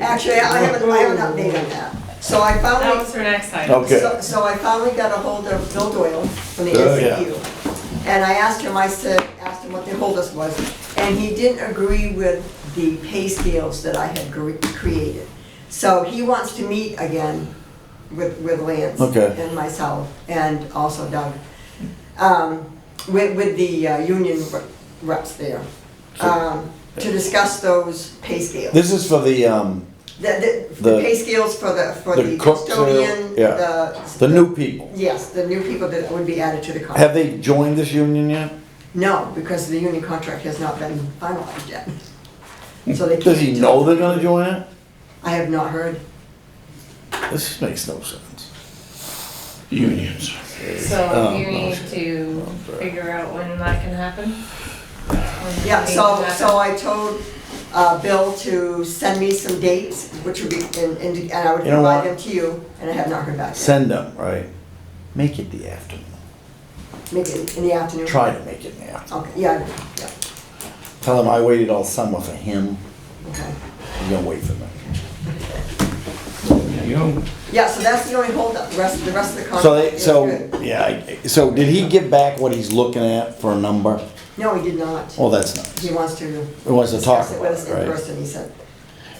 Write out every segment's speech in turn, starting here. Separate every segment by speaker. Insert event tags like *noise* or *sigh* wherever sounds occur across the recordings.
Speaker 1: Actually, I haven't, I haven't updated that. So I
Speaker 2: That
Speaker 1: finally,
Speaker 2: was her next item.
Speaker 3: Okay,
Speaker 1: so- so I finally got a hold of Bill Doyle from the
Speaker 3: Oh, yeah.
Speaker 1: ACU. And I asked him, I said, asked him what the holdup was, and he didn't agree with the pay scales that I had gre- created. So he wants to meet again with, with Lance.
Speaker 3: Okay.
Speaker 1: And myself, and also Doug, um, with, with the uh, union reps there, um, to discuss those pay scales.
Speaker 3: this is for the, um,
Speaker 1: The, the,
Speaker 3: The-
Speaker 1: the pay scales for the, for
Speaker 3: the
Speaker 1: the
Speaker 3: cooks, uh,
Speaker 1: custodian,
Speaker 3: yeah.
Speaker 1: the.
Speaker 3: the new people.
Speaker 1: Yes, the new people that would be added to the
Speaker 3: Have
Speaker 1: contract.
Speaker 3: they joined this union yet?
Speaker 1: No, because the union contract has not been finalized yet.
Speaker 3: *laughs*
Speaker 1: So they can't.
Speaker 3: Does he
Speaker 1: tell-
Speaker 3: know they're gonna join it?
Speaker 1: I have not heard.
Speaker 3: This makes no sense.
Speaker 4: Unions.
Speaker 2: So you
Speaker 3: Oh,
Speaker 2: need
Speaker 3: okay.
Speaker 2: to figure out when that can happen. When
Speaker 1: Yeah,
Speaker 2: you need
Speaker 1: so,
Speaker 2: that.
Speaker 1: so I told, uh, Bill to send me some dates, which would be, and, and and I would
Speaker 3: You know what?
Speaker 1: provide them to you, and I have not heard back yet.
Speaker 3: Send them, right? Make it the afternoon.
Speaker 1: Maybe in- in the afternoon.
Speaker 3: Try to make it in the afternoon.
Speaker 1: Okay, yeah, yeah,
Speaker 3: Tell him I waited all summer for him.
Speaker 1: okay.
Speaker 3: He's gonna wait for me.
Speaker 4: You know,
Speaker 1: Yeah, so that's the only holdup, the rest, the rest of the
Speaker 3: So
Speaker 1: contract
Speaker 3: they,
Speaker 1: is
Speaker 3: so,
Speaker 1: good.
Speaker 3: yeah, I- so did he give back what he's looking at for a number?
Speaker 1: No, he did not.
Speaker 3: Well, that's
Speaker 1: He
Speaker 3: nice.
Speaker 1: wants to.
Speaker 3: He wants to talk
Speaker 1: discuss it
Speaker 3: about
Speaker 1: with us
Speaker 3: it,
Speaker 1: in
Speaker 3: right?
Speaker 1: person, he said.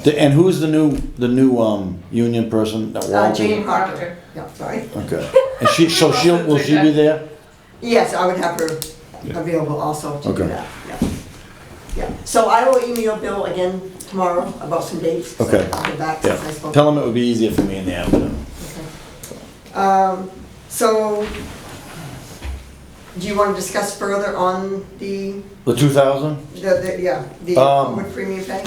Speaker 3: The- And who's the new, the new, um, union person that
Speaker 1: Uh,
Speaker 3: Walter?
Speaker 1: Jane
Speaker 2: Proctor.
Speaker 1: Proctor. Yeah, sorry.
Speaker 3: Okay. And she, so she'll, will she be there?
Speaker 1: Yes, I would have her
Speaker 4: Yeah.
Speaker 1: available also to
Speaker 3: Okay.
Speaker 1: do that, yeah. Yeah, so I will email Bill again tomorrow about some dates. so
Speaker 3: Okay.
Speaker 1: I'll get back
Speaker 3: Yeah.
Speaker 1: since I spoke.
Speaker 3: Tell him it would be easier for me in the afternoon.
Speaker 1: Okay. Um, so, do you want to discuss further on the,
Speaker 3: The two thousand?
Speaker 1: the, the- yeah, the
Speaker 3: Um,
Speaker 1: wood premium pay?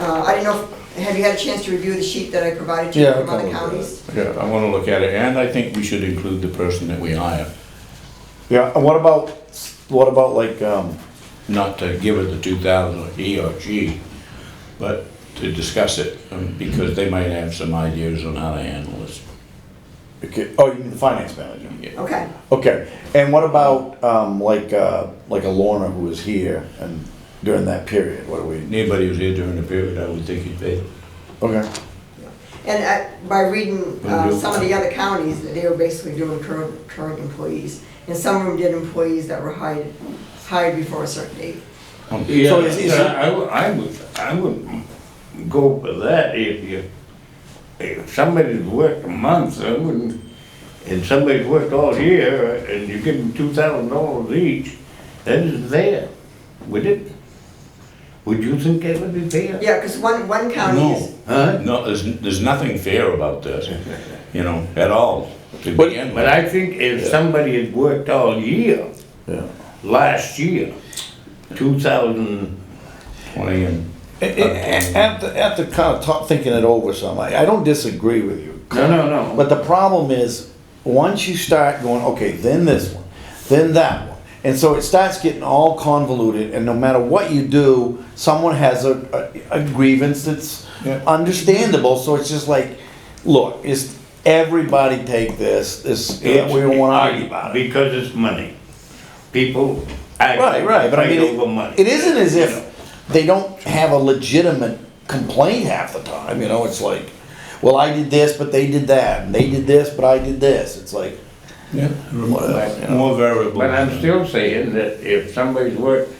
Speaker 1: Uh, I don't know, if- have you had a chance to review the sheet that I provided to you
Speaker 3: Yeah.
Speaker 1: from
Speaker 3: okay.
Speaker 1: other counties?
Speaker 4: yeah, I wanna look at it, and I think we should include the person that we hire,
Speaker 3: Yeah, and what about, what about like, um,
Speaker 4: not to give it the two thousand, he or she, but to discuss it, um, because they might have some ideas on how to handle this.
Speaker 3: okay, oh, you mean the finance manager?
Speaker 4: Yeah.
Speaker 1: Okay,
Speaker 3: Okay, and what about, um, like, uh, like a Lorna who was here and during that period, what do we,
Speaker 4: Anybody who's here during the period, I would think he'd pay.
Speaker 3: okay,
Speaker 1: and I- by reading uh,
Speaker 4: Review.
Speaker 1: some of the other counties, they were basically doing current, current employees. And some of them did employees that were hired, hired before a certain date.
Speaker 5: Yeah,
Speaker 3: Um, is- is it-
Speaker 5: I would, I would, I would go for that if you, if somebody's worked a month, I wouldn't, and somebody's worked all year, and you give them two thousand dollars each, that is fair, would it? Would you think that would be fair?
Speaker 1: Yeah, because one, one county is,
Speaker 4: No,
Speaker 5: Huh?
Speaker 4: no, there's, there's nothing fair about this, you know, at all, to
Speaker 3: But-
Speaker 4: begin
Speaker 5: But
Speaker 4: with.
Speaker 5: I think if somebody had worked all year,
Speaker 3: yeah.
Speaker 5: last year, two thousand,
Speaker 4: Twenty and
Speaker 3: A- a- After, after kind of talk, thinking it over some, I, I don't disagree with you.
Speaker 5: no, no, no.
Speaker 3: But the problem is, once you start going, okay, then this one, then that one. And so it starts getting all convoluted and no matter what you do, someone has a, a a grievance that's
Speaker 4: Yeah.
Speaker 3: understandable, so it's just like, look, is everybody take this, this, we don't wanna argue about it.
Speaker 5: Because it's money. People. act-
Speaker 3: Right, right, but I mean,
Speaker 5: Fight over money.
Speaker 3: it- it isn't as if they don't have a legitimate complaint half the time, you know, it's like, well, I did this, but they did that, and they did this, but I did this, it's like,
Speaker 4: Yeah,
Speaker 3: Whatever, you know.
Speaker 4: more variables.
Speaker 5: But I'm still saying that if somebody's worked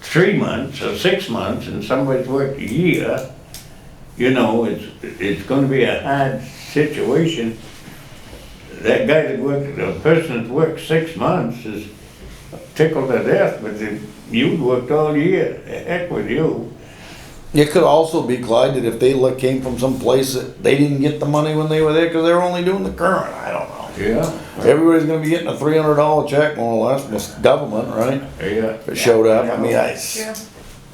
Speaker 5: three months or six months and somebody's worked a year, you know, it's, it's gonna be a hard situation. That guy that worked, the person that worked six months is tickled to death, but if you worked all year, heck with you.
Speaker 3: It could also be, Clyde, that if they le- came from some place that they didn't get the money when they were there, because they were only doing the current, I don't know.
Speaker 5: Yeah.
Speaker 3: Everybody's gonna be getting a three hundred dollar check more or less, from this government, right?
Speaker 5: Yeah.
Speaker 3: If it showed up, I mean, I, s-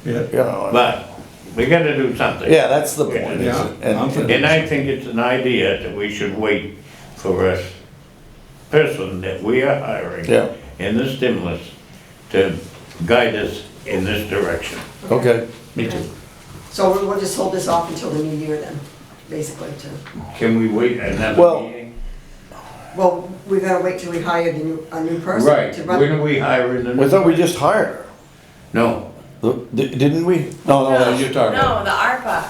Speaker 2: Yeah.
Speaker 4: Yeah.
Speaker 3: you know,
Speaker 5: But we gotta do something.
Speaker 3: yeah, that's the point. is
Speaker 4: Yeah,
Speaker 3: it? And-
Speaker 4: I'm for
Speaker 5: And I think it's an idea that we should wait for a person that we are hiring
Speaker 3: Yeah.
Speaker 5: in the stimulus to guide us in this direction.
Speaker 3: Okay,
Speaker 4: Me too.
Speaker 1: so we'll we'll just hold this off until the new year then, basically, to.
Speaker 5: Can we wait another
Speaker 3: Well-
Speaker 5: meeting?
Speaker 1: Well, we gotta wait till we hire the new, a new person
Speaker 5: Right,
Speaker 1: to
Speaker 5: when
Speaker 1: run.
Speaker 5: are we hiring the?
Speaker 3: we thought we just hired her,
Speaker 5: No,
Speaker 3: The- di- didn't we? No, no,
Speaker 4: you're talking-
Speaker 2: No, the